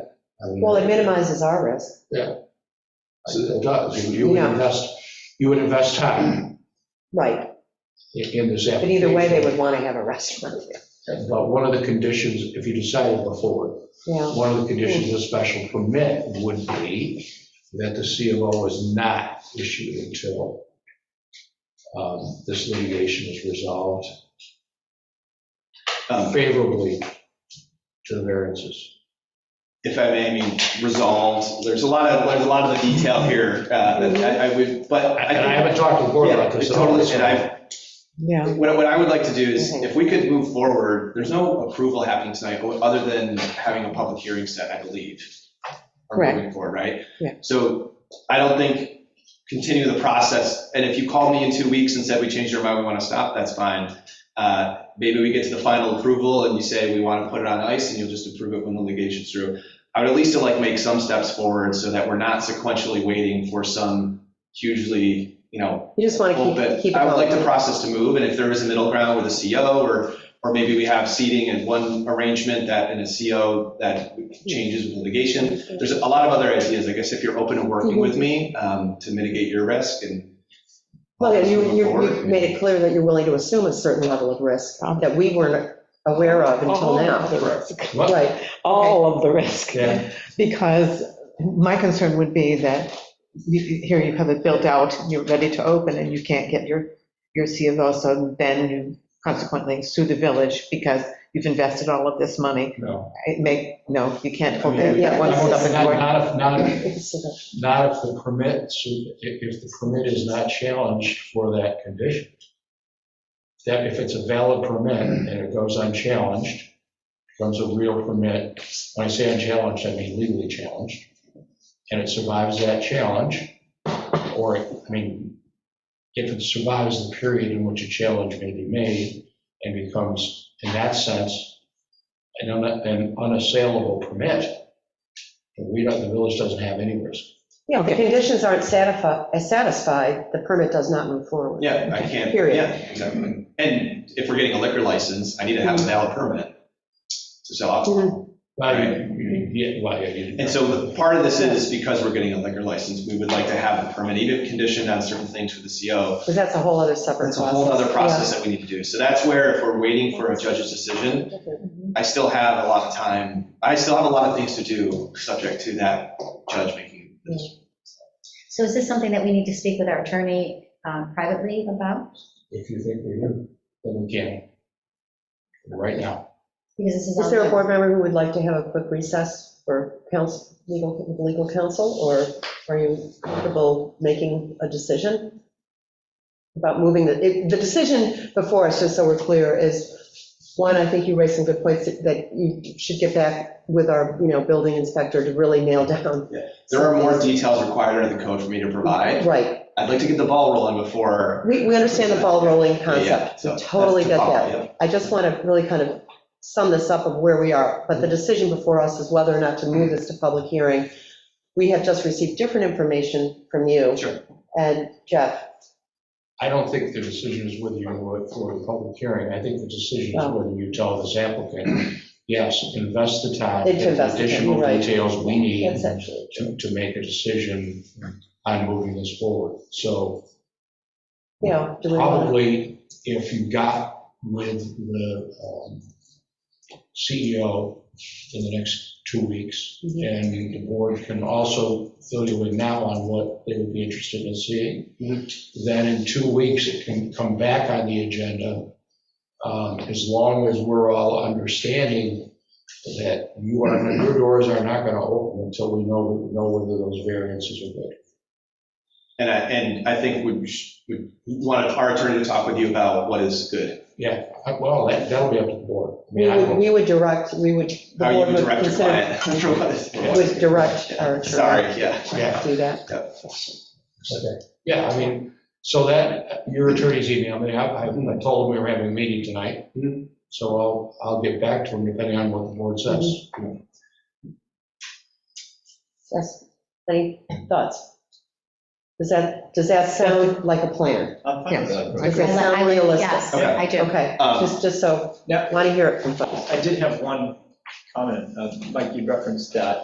I mean, Well, it minimizes our risk. I- It does. You would Yeah. invest, you would invest time Right, in in this but application. either way, they would want to have a restaurant there. But one of the conditions, if you decided before, Yeah, one of the conditions of special permit would be that the CMO is not issued until um, this litigation is resolved Um, favorably to the variances. If I may, I mean, resolved, there's a lot of, there's a lot of the detail here, uh, that I I would, but. And I think- haven't talked to the board Yeah, about this. at all. totally, and I've, yeah. What, I- what I would like to do is, Okay. if we could move forward, there's no approval happening tonight, o- other than having a public hearing set, I believe. Or Correct. moving forward, right? Yeah. So I don't think, continue the process, and if you called me in two weeks and said, we changed our mind, we want to stop, that's fine. Uh, Maybe we get to the final approval and you say, we want to put it on ice, and you'll just approve it when the litigation's through. I would at least like make some steps forward so that we're not sequentially waiting for some hugely, you know, You just want to well, but keep, keep it I would like going. the process to move, and if there is a middle ground with a CO, or, or maybe we have seating in one arrangement that, in a CO that changes with litigation. There's a lot of other ideas, I guess, if you're open to Mm-hmm. working with me um, to mitigate your risk and. Well, you, Move you, forward. you made it clear that you're willing to assume a certain level of risk that we weren't aware of until now. What? Right, all of the risk. Yeah. Because my concern would be that you- here you have it built out, you're ready to open, and you can't get your, your C of O, so then you consequently sue the village because you've invested all of this money. No. It may, no, you can't hold I that mean, Yeah, that one it's- step it's- in Not, court. not, if- not, if- It's, uh, Not if the permit, so if, if the permit is not challenged for that condition. That if it's a valid permit and it goes unchallenged, becomes a real permit, when I say unchallenged, I mean legally challenged, and it survives that challenge, or, I mean, if it survives the period in which a challenge may be made and becomes, in that sense, an un- an unassailable permit, then we don't, the village doesn't have any risk. Yeah, if the conditions aren't satisfied, satisfied, the permit does not move forward. Yeah, I can't, Period. yeah, exactly. And if we're getting a liquor license, I need to have a Mm-hmm. valid permit to sell alcohol. Well, you- you- yeah, well, yeah, you- And so part of this is because we're getting a liquor license, we would like to have a permit, even conditioned on certain things with the CO, Because that's a whole other separate That's process. a whole other process that we need to do. So that's where if we're waiting for a judge's decision, I still have a lot of time. I still have a lot of things to do, subject to that judge making. this. So is this something that we need to speak with our attorney uh, privately about? If you think we do, then we can. Right now. Because this is. Is Um, there a ongoing. board member who would like to have a quick recess for counsel, legal, legal counsel, or are you comfortable making a decision? About moving, the, it- the decision before us, just so we're clear, is, one, I think you raised some good points that- that you should get back with our, you know, building inspector to really nail down. There are more details required under the code for me to provide. Right, I'd like to get the ball rolling before. we, we understand the ball rolling Yeah, concept, so we totally that's get the that. ball, yeah. I just want to really kind of sum this up of where we are, Mm-hmm. but the decision before us is whether or not to move this to public hearing. We have just received different information from you. Sure. And Jeff, I don't think the decision is whether you go it for a public hearing. I think the decision is Oh. whether you tell this applicant, yes, invest the time. It's get the invested, Additional right. details we need Mm-hmm. that's actually, to, to make a decision on moving this forward. So you know, do we want probably if you got with the um, CEO in the next two weeks, to? And the board can also fill you in now on what they would be interested in seeing. Mm-hmm. Then in two weeks, it can come back on the agenda. um, As long as we're all understanding that you are, your doors are not going to open until we know, know whether those variances are good. And I, and I think we sh- we want our attorney to talk with you about what is good. Uh, Well, that, that'll be up to the board. I We mean, I would, don't- we would direct, we would, the How you board would would direct your consider, client. for what is- would direct our attorney Sorry, yeah. Yeah, to do that. okay. yeah, I mean, so that, your attorney's emailed me, I, I told him we were having a meeting tonight. Mhm. So I'll, I'll get back to him depending on what the board says. Yes, any thoughts? Does that, does that sound like a plan? Uh, Does that I- I sound would- realistic? Yes, Okay. I do. Okay, Um, just, just so, Yeah. want to hear it from folks. I did have one comment. Uh, Mike, you referenced that